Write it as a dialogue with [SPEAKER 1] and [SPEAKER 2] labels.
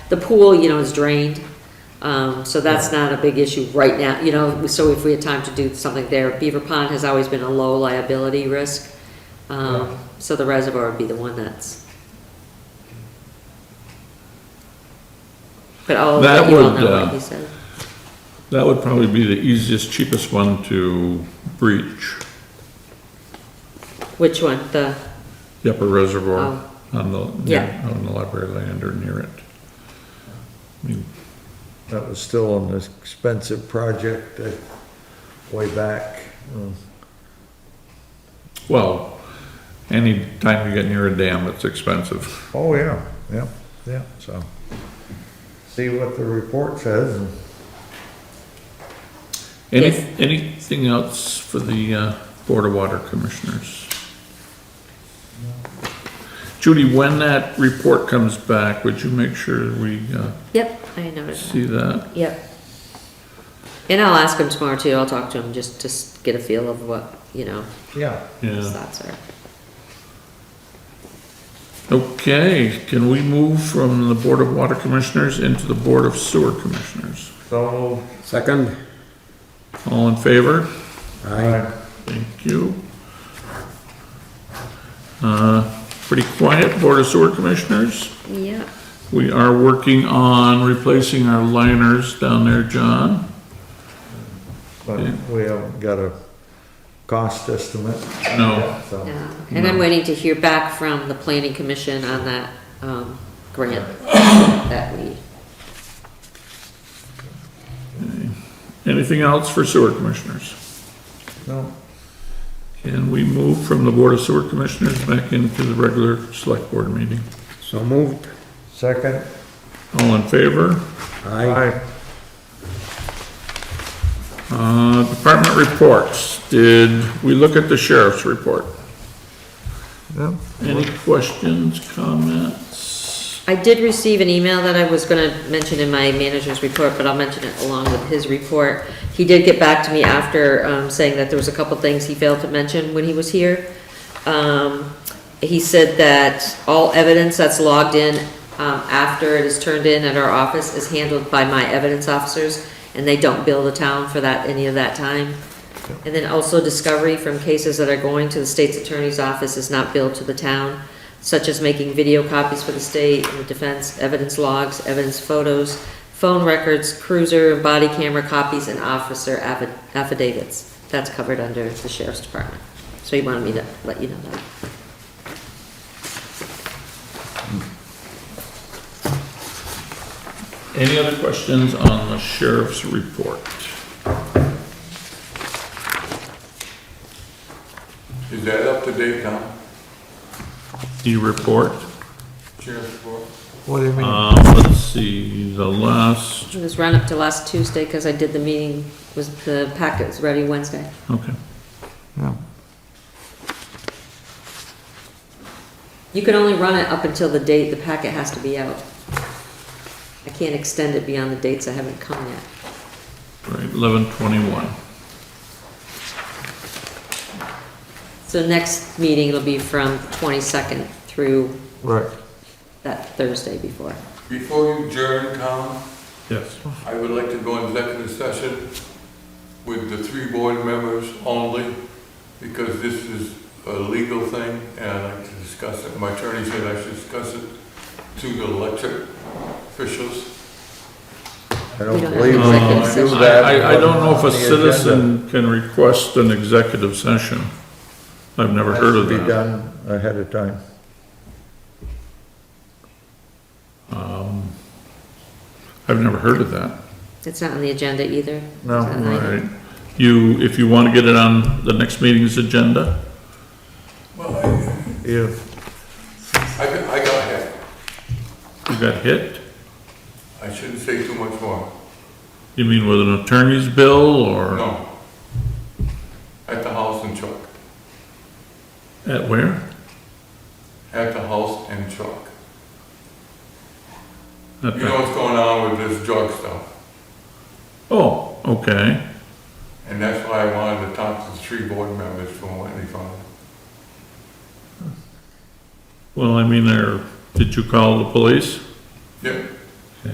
[SPEAKER 1] The pool, you know, is drained, um, so that's not a big issue right now, you know, so if we had time to do something there. Beaver Pond has always been a low liability risk, um, so the reservoir would be the one that's. But I'll let
[SPEAKER 2] That
[SPEAKER 1] you all
[SPEAKER 2] would,
[SPEAKER 1] know
[SPEAKER 2] uh,
[SPEAKER 1] what he said.
[SPEAKER 2] That would probably be the easiest, cheapest one to breach,
[SPEAKER 1] Which one, the, oh,
[SPEAKER 2] the upper reservoir on the,
[SPEAKER 1] Yeah.
[SPEAKER 2] on the library land or near it. I mean,
[SPEAKER 3] That was still an expensive project uh, way back. um,
[SPEAKER 2] Well, anytime you get near a dam, it's expensive.
[SPEAKER 3] Oh, yeah, yeah, yeah, so. See what the report says and
[SPEAKER 2] Any,
[SPEAKER 1] Yes.
[SPEAKER 2] anything else for the uh, Board of Water Commissioners? Judy, when that report comes back, would you make sure we uh,
[SPEAKER 1] yep, I noticed. that.
[SPEAKER 2] see that?
[SPEAKER 1] Yep. And I'll ask him tomorrow too, I'll talk to him just to s- get a feel of what, you know,
[SPEAKER 3] Yeah,
[SPEAKER 1] his
[SPEAKER 2] Yeah.
[SPEAKER 1] thoughts are.
[SPEAKER 2] Okay, can we move from the Board of Water Commissioners into the Board of Sewer Commissioners?
[SPEAKER 3] so,
[SPEAKER 4] Second?
[SPEAKER 2] All in favor?
[SPEAKER 3] I,
[SPEAKER 2] Thank you. Uh, Pretty quiet, Board of Sewer Commissioners.
[SPEAKER 1] Yeah,
[SPEAKER 2] We are working on replacing our liners down there, John.
[SPEAKER 3] but we haven't got a cost estimate.
[SPEAKER 2] No,
[SPEAKER 3] So,
[SPEAKER 1] yeah, and I'm waiting to hear back from the planning commission on that, um, grant that we,
[SPEAKER 2] anything else for Sewer Commissioners?
[SPEAKER 3] no,
[SPEAKER 2] Can we move from the Board of Sewer Commissioners back into the regular Select Board meeting?
[SPEAKER 4] So moved.
[SPEAKER 3] second,
[SPEAKER 2] All in favor?
[SPEAKER 4] Aye.
[SPEAKER 3] I,
[SPEAKER 2] Uh, Department reports, did we look at the sheriff's report?
[SPEAKER 3] no,
[SPEAKER 2] Any questions, comments?
[SPEAKER 1] I did receive an email that I was gonna mention in my manager's report, but I'll mention it along with his report. He did get back to me after, um, saying that there was a couple things he failed to mention when he was here. Um, he said that all evidence that's logged in, um, after it is turned in at our office is handled by my evidence officers, and they don't bill the town for that, any of that time. And then also discovery from cases that are going to the state's attorney's office is not billed to the town, such as making video copies for the state and the defense, evidence logs, evidence photos, phone records, cruiser, and body camera copies, and officer affi- affidavits. That's covered under the sheriff's department. So he wanted me to let you know that.
[SPEAKER 2] Any other questions on the sheriff's report?
[SPEAKER 5] Is that up to date now?
[SPEAKER 2] The report,
[SPEAKER 5] Sheriff's report?
[SPEAKER 3] what do you mean?
[SPEAKER 2] um, let's see, the last,
[SPEAKER 1] It was run up to last Tuesday, because I did the meeting, was, the packet was ready Wednesday.
[SPEAKER 2] okay.
[SPEAKER 3] No.
[SPEAKER 1] You can only run it up until the date the packet has to be out. I can't extend it beyond the dates that haven't come yet.
[SPEAKER 2] Right, eleven twenty-one.
[SPEAKER 1] So next meeting will be from 22nd through
[SPEAKER 3] Right,
[SPEAKER 1] that Thursday before.
[SPEAKER 5] Before you adjourn, Tom,
[SPEAKER 2] Yes.
[SPEAKER 5] I would like to go in executive session with the three board members only, because this is a legal thing, and I'd like to discuss it. My attorney said I should discuss it to the elected officials.
[SPEAKER 3] I don't
[SPEAKER 1] We don't have
[SPEAKER 2] uh,
[SPEAKER 3] believe we
[SPEAKER 1] executive
[SPEAKER 3] can do
[SPEAKER 1] session.
[SPEAKER 3] that.
[SPEAKER 2] Um, I, I- I don't know if
[SPEAKER 3] on
[SPEAKER 2] a
[SPEAKER 3] the agenda.
[SPEAKER 2] citizen can request an executive session. I've never heard of
[SPEAKER 3] Has to Be
[SPEAKER 2] that.
[SPEAKER 3] done ahead of time.
[SPEAKER 2] Um, I've never heard of that.
[SPEAKER 1] It's not on the agenda either.
[SPEAKER 3] No,
[SPEAKER 1] It's not an
[SPEAKER 2] All
[SPEAKER 1] item.
[SPEAKER 2] right, you, if you want to get it on the next meeting's agenda,
[SPEAKER 5] Well, I,
[SPEAKER 3] You,
[SPEAKER 5] I got- I got hit.
[SPEAKER 2] you got hit?
[SPEAKER 5] I shouldn't say too much more.
[SPEAKER 2] You mean with an attorney's bill or
[SPEAKER 5] No. At the house and truck.
[SPEAKER 2] at where?
[SPEAKER 5] At the house and truck.
[SPEAKER 2] At
[SPEAKER 5] You know
[SPEAKER 2] the-
[SPEAKER 5] what's going on with this drug stuff?
[SPEAKER 2] Oh, okay,
[SPEAKER 5] And that's why I wanted to talk to the three board members from Whitney Farm.
[SPEAKER 2] well, I mean, there, did you call the police?
[SPEAKER 5] Yep,